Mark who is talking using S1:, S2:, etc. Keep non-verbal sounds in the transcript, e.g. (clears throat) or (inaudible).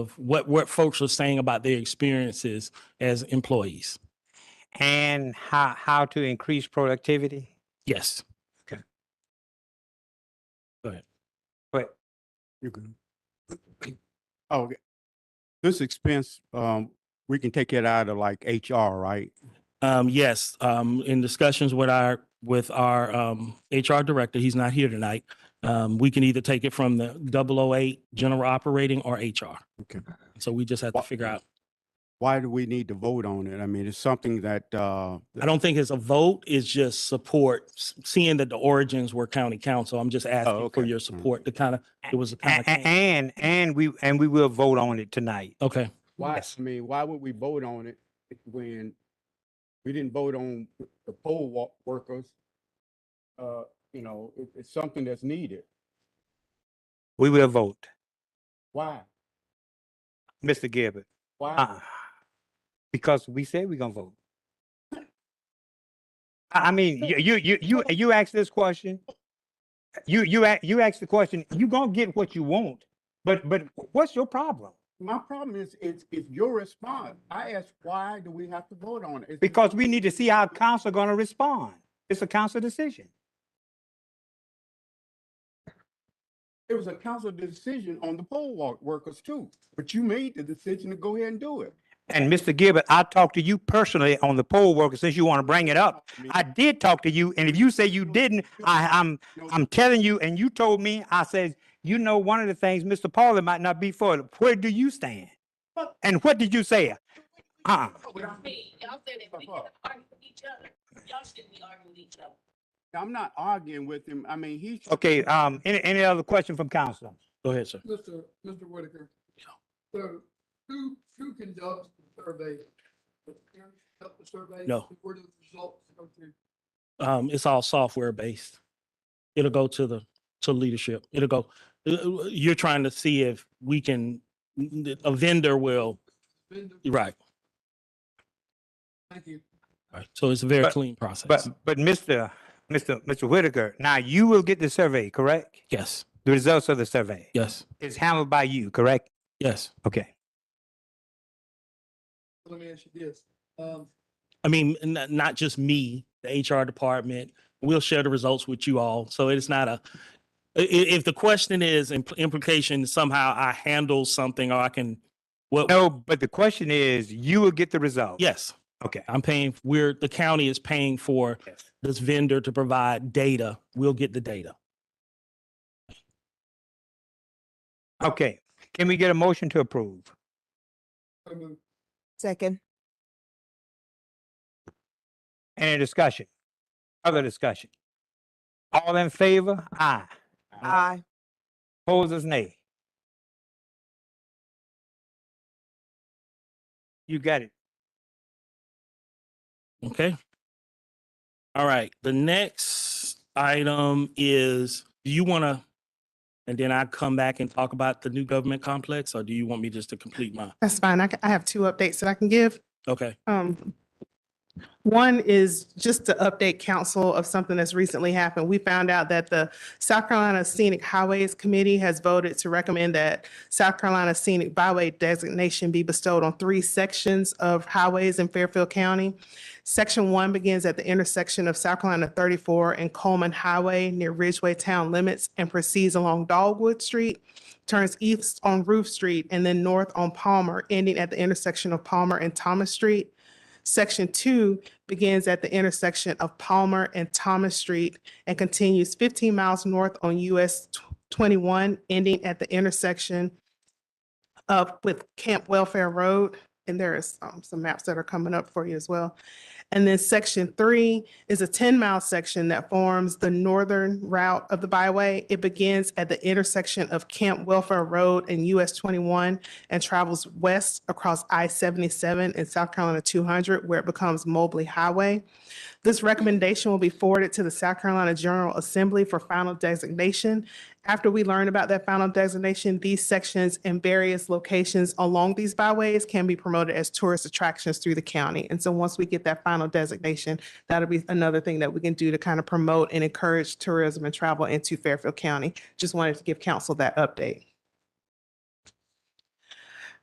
S1: of what, what folks are saying about their experiences as employees.
S2: and how, how to increase productivity.
S1: Yes.
S2: But
S3: You can. (clears throat) Oh, okay. this expense, um, we can take it out of like HR, right?
S1: Um, yes, um, in discussions with our, with our, um, HR director, he's not here tonight. Um, we can either take it from the 008 general operating or HR.
S3: Okay.
S1: So we just have to
S3: Wha-
S1: figure out.
S3: Why do we need to vote on it? I mean, it's something that, uh,
S1: I don't think it's a vote, it's just support, s- seeing that the origins were county council. I'm just asking for
S3: okay.
S1: your
S3: Mm.
S1: support to kind of, it was a
S2: a-
S1: kind
S2: a-
S1: of,
S2: and, and we, and we will vote on it tonight.
S1: okay.
S3: why,
S2: Yes.
S3: I mean, why would we vote on it when we didn't vote on the poll wa- workers? Uh, you know, it, it's something that's needed.
S2: We will vote.
S3: Why?
S2: Mr. Gilbert.
S3: Why?
S2: Uh, Because we said we're gonna vote. I, I mean, you, you, you, you, you asked this question. You, you, a- you asked the question, you gonna get what you want, but, but what's your problem?
S3: My problem is, it's, it's your response. I asked, why do we have to vote on it? It's-
S2: Because we need to see how council gonna respond. It's a council decision.
S3: It was a council decision on the poll wa- workers too, but you made the decision to go ahead and do it.
S2: And Mr. Gilbert, I talked to you personally on the poll worker since you want to bring it up.
S3: mean,
S2: I did talk to you, and if you say you didn't, I, I'm,
S3: you know,
S2: I'm telling you, and you told me, I said, you know, one of the things, Mr. Pauley might not be for it. Where do you stand?
S3: But-
S2: And what did you say? Uh-uh.
S3: without-
S4: me. Y'all said that we
S3: Fuck
S4: can
S3: up.
S4: argue with each other. Y'all shouldn't be arguing with each other.
S3: I'm not arguing with him. I mean, he's.
S2: Okay, um, any, any other question from council?
S1: Go ahead, sir.
S5: Mr. Mr. Whitaker. So who, who conducts the survey? The parents conduct the survey?
S1: No.
S5: And Where do the results go to?
S1: um, it's all software based. It'll go to the, to leadership. It'll go, uh, uh, you're trying to see if we can, a vendor will,
S5: Vendor?
S1: right.
S5: Thank you.
S1: right. So it's a very
S2: But-
S1: clean process.
S2: But, but Mr. Mr. Mr. Whitaker, now you will get the survey, correct?
S1: Yes,
S2: The results of the survey
S1: yes,
S2: is handled by you, correct?
S1: yes.
S2: Okay.
S5: Let me ask you this. Um,
S1: I mean, n- not, just me, the HR department, we'll share the results with you all. So it's not a, i- i- if the question is impl- implication somehow I handle something or I can, what,
S2: No, but the question is, you will get the result.
S1: yes.
S2: Okay.
S1: I'm paying, we're, the county is paying for
S2: Yes.
S1: this vendor to provide data. We'll get the data.
S2: Okay. Can we get a motion to approve?
S5: so moved.
S6: Second.
S2: Any discussion? Other discussion? All in favor? Aye.
S6: Aye.
S2: Opposers, nay. You got it.
S1: Okay. All right, the next item is, do you want to, and then I come back and talk about the new government complex, or do you want me just to complete my,
S7: That's fine. I, ca- I have two updates that I can give.
S1: okay?
S7: Um, one is just to update council of something that's recently happened. We found out that the South Carolina Scenic Highways Committee has voted to recommend that South Carolina Scenic Byway designation be bestowed on three sections of highways in Fairfield County. Section one begins at the intersection of South Carolina thirty-four and Coleman Highway near Ridgeway Town limits and proceeds along Dogwood Street, turns east on Roof Street, and then north on Palmer, ending at the intersection of Palmer and Thomas Street. Section two begins at the intersection of Palmer and Thomas Street and continues fifteen miles north on US tw- twenty-one, ending at the intersection of with Camp Welfare Road. And there is um, some maps that are coming up for you as well. And then section three is a ten-mile section that forms the northern route of the byway. It begins at the intersection of Camp Welfare Road and US twenty-one and travels west across I-77 and South Carolina 200, where it becomes Mobley Highway. This recommendation will be forwarded to the South Carolina General Assembly for final designation. After we learn about that final designation, these sections and various locations along these byways can be promoted as tourist attractions through the county. And so once we get that final designation, that'll be another thing that we can do to kind of promote and encourage tourism and travel into Fairfield County. Just wanted to give council that update.